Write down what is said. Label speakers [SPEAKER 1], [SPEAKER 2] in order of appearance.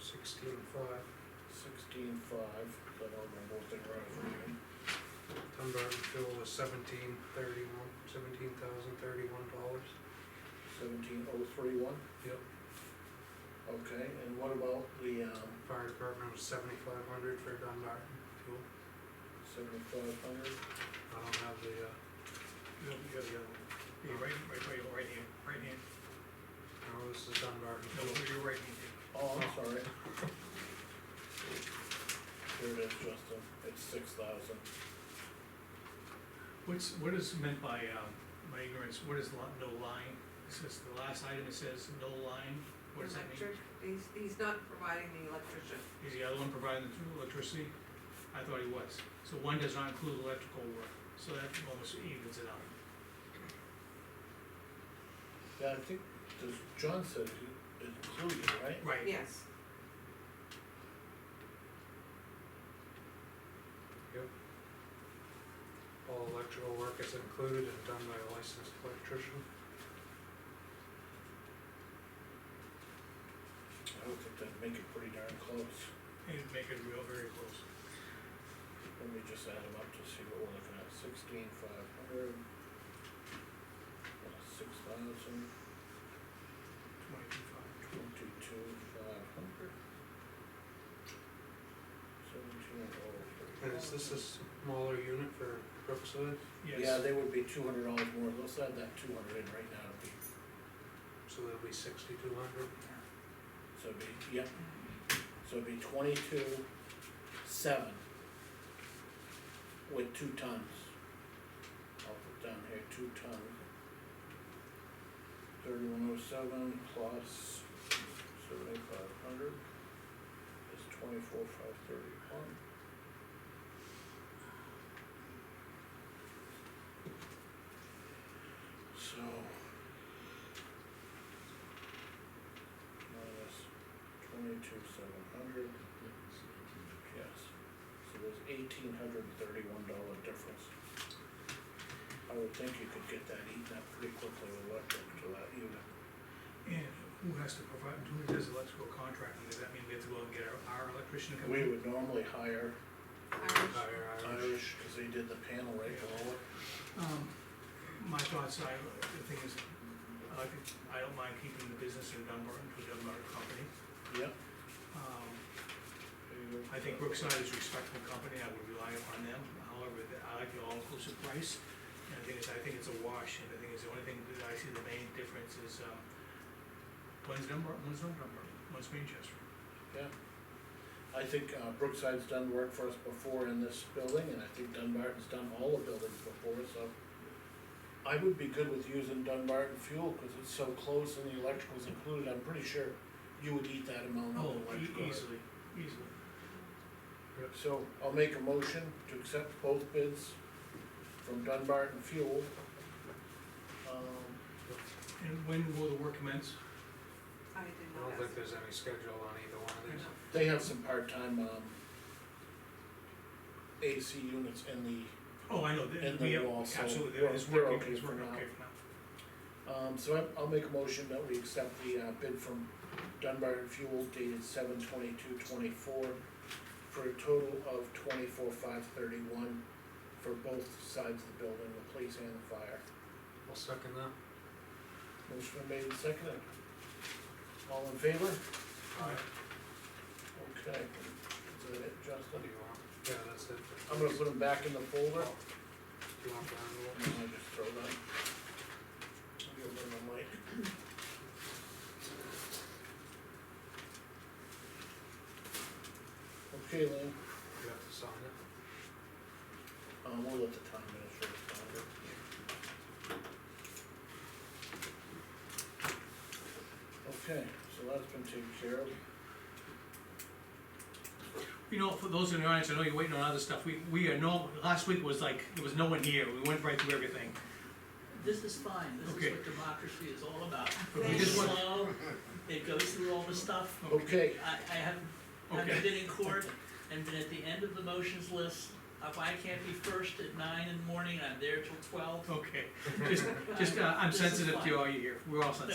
[SPEAKER 1] sixteen five,
[SPEAKER 2] sixteen five, I don't remember what they were, I was reading.
[SPEAKER 1] ton barn fuel was seventeen thirty-one, seventeen thousand thirty-one dollars.
[SPEAKER 2] Seventeen oh three one,
[SPEAKER 1] Yep.
[SPEAKER 2] okay, and what about the, um,
[SPEAKER 1] Fire department was seventy-five hundred for Dunbar fuel,
[SPEAKER 2] seventy-five hundred?
[SPEAKER 1] I don't have the, uh,
[SPEAKER 3] No, you got
[SPEAKER 1] the other one.
[SPEAKER 3] your right, right, right, right hand, right hand,
[SPEAKER 1] no, this is Dunbar
[SPEAKER 3] no,
[SPEAKER 1] fuel.
[SPEAKER 3] your right hand.
[SPEAKER 2] Oh, I'm sorry. Here it is, Justin, it's six thousand.
[SPEAKER 3] What's, what is meant by, um, my ignorance, what is li- no line? It says, the last item, it says no line, what does that mean?
[SPEAKER 4] Electric- He's, he's not providing the electrician.
[SPEAKER 3] Is the other one providing the electricity? I thought he was, so one does not include electrical work, so that almost evens it out.
[SPEAKER 2] Yeah, I think, this John said it included, right?
[SPEAKER 3] Right,
[SPEAKER 4] Yes,
[SPEAKER 1] All electrical work is included and done by a licensed electrician.
[SPEAKER 2] I would think that'd make it pretty darn close,
[SPEAKER 3] and make it real very close.
[SPEAKER 2] let me just add them up to see what we're looking at, sixteen five hundred. uh, Six thousand,
[SPEAKER 3] Twenty-two five.
[SPEAKER 2] twenty-two five hundred. Seventeen oh three.
[SPEAKER 1] And is this a smaller unit for Brookside?
[SPEAKER 2] Yeah,
[SPEAKER 3] Yes,
[SPEAKER 2] they would be two hundred dollars more, let's add that two hundred in right now, it'd be,
[SPEAKER 1] So that'll be sixty-two hundred.
[SPEAKER 2] so it'd be, yeah. So it'd be twenty-two seven. With two tons. I'll put down here, two tons. Thirty-one oh seven plus seventy-five hundred is twenty-four five thirty-one. So. Minus twenty-two seven hundred. Yes, so there's eighteen hundred and thirty-one dollar difference. I would think you could get that eaten up pretty quickly with electric to that unit.
[SPEAKER 3] and who has to provide, who does electrical contracting, does that mean we have to go and get our, our electrician to come
[SPEAKER 2] We
[SPEAKER 3] in?
[SPEAKER 2] would normally hire
[SPEAKER 4] Irish.
[SPEAKER 1] Higher Irish.
[SPEAKER 2] Irish, cause they did the panel right below it.
[SPEAKER 3] Um, my thoughts, I, the thing is, I like, it- I don't mind keeping the business in Dunbar, to a Dunbar company.
[SPEAKER 2] Yep.
[SPEAKER 3] Um,
[SPEAKER 2] there you go.
[SPEAKER 3] I think Brookside is a respectful company, I would rely upon them, however, th- I like the all-inclusive price. And the thing is, I think it's a wash, and the thing is, the only thing that I see the main difference is, um, one's Dunbar, one's not Dunbar, one's Manchester.
[SPEAKER 2] Yeah. I think uh, Brookside's done work for us before in this building, and I think Dunbarton's done all the buildings before, so. I would be good with using Dunbarton fuel, cause it's so close and the electrical's included, I'm pretty sure you would eat that amount of
[SPEAKER 3] Oh,
[SPEAKER 2] electrical.
[SPEAKER 3] e- easily, easily.
[SPEAKER 2] So I'll make a motion to accept both bids from Dunbarton Fuel. Um,
[SPEAKER 3] And when will the work commence?
[SPEAKER 4] I did
[SPEAKER 1] I
[SPEAKER 4] not
[SPEAKER 1] don't
[SPEAKER 4] ask.
[SPEAKER 1] think there's any schedule on either one of these.
[SPEAKER 2] They have some part-time, um, AC units in the
[SPEAKER 3] Oh, I know, th-
[SPEAKER 2] And
[SPEAKER 3] we
[SPEAKER 2] the
[SPEAKER 3] have,
[SPEAKER 2] wall, so
[SPEAKER 3] absolutely,
[SPEAKER 2] we're-
[SPEAKER 3] it's
[SPEAKER 2] we're
[SPEAKER 3] working,
[SPEAKER 2] okay
[SPEAKER 3] it's
[SPEAKER 2] for
[SPEAKER 3] working
[SPEAKER 2] now.
[SPEAKER 3] okay for now.
[SPEAKER 2] Um, so I, I'll make a motion that we accept the, uh, bid from Dunbar and Fuel dated seven twenty-two twenty-four for a total of twenty-four five thirty-one for both sides of the building, the police and the fire.
[SPEAKER 1] I'll second that.
[SPEAKER 2] Motion been made and seconded. All in favor?
[SPEAKER 3] Alright.
[SPEAKER 2] Okay, is that it,
[SPEAKER 1] What do
[SPEAKER 2] Justin?
[SPEAKER 1] you want? Yeah, that's it.
[SPEAKER 2] I'm gonna put them back in the folder.
[SPEAKER 1] Do you want the envelope?
[SPEAKER 2] And I just throw that. I'll give them the mic. Okay, Lynn,
[SPEAKER 1] You have to sign it.
[SPEAKER 2] um, we'll let the town administrator sign it. Okay, so that's been taken care of.
[SPEAKER 3] You know, for those in the audience, I know you're waiting on other stuff, we, we are no, last week was like, there was no one here, we went right through everything.
[SPEAKER 5] This is fine, this
[SPEAKER 3] Okay.
[SPEAKER 5] is what democracy is all about.
[SPEAKER 3] But we
[SPEAKER 5] It's
[SPEAKER 3] just want,
[SPEAKER 5] slow, it goes through all the stuff.
[SPEAKER 2] Okay,
[SPEAKER 5] I, I haven't, haven't
[SPEAKER 3] Okay.
[SPEAKER 5] been in court and been at the end of the motions list. If I can't be first at nine in the morning, I'm there till twelve.
[SPEAKER 3] okay, just, just, uh, I'm
[SPEAKER 5] This is
[SPEAKER 3] sensitive
[SPEAKER 5] fine.
[SPEAKER 3] to all you here, we're all sensitive.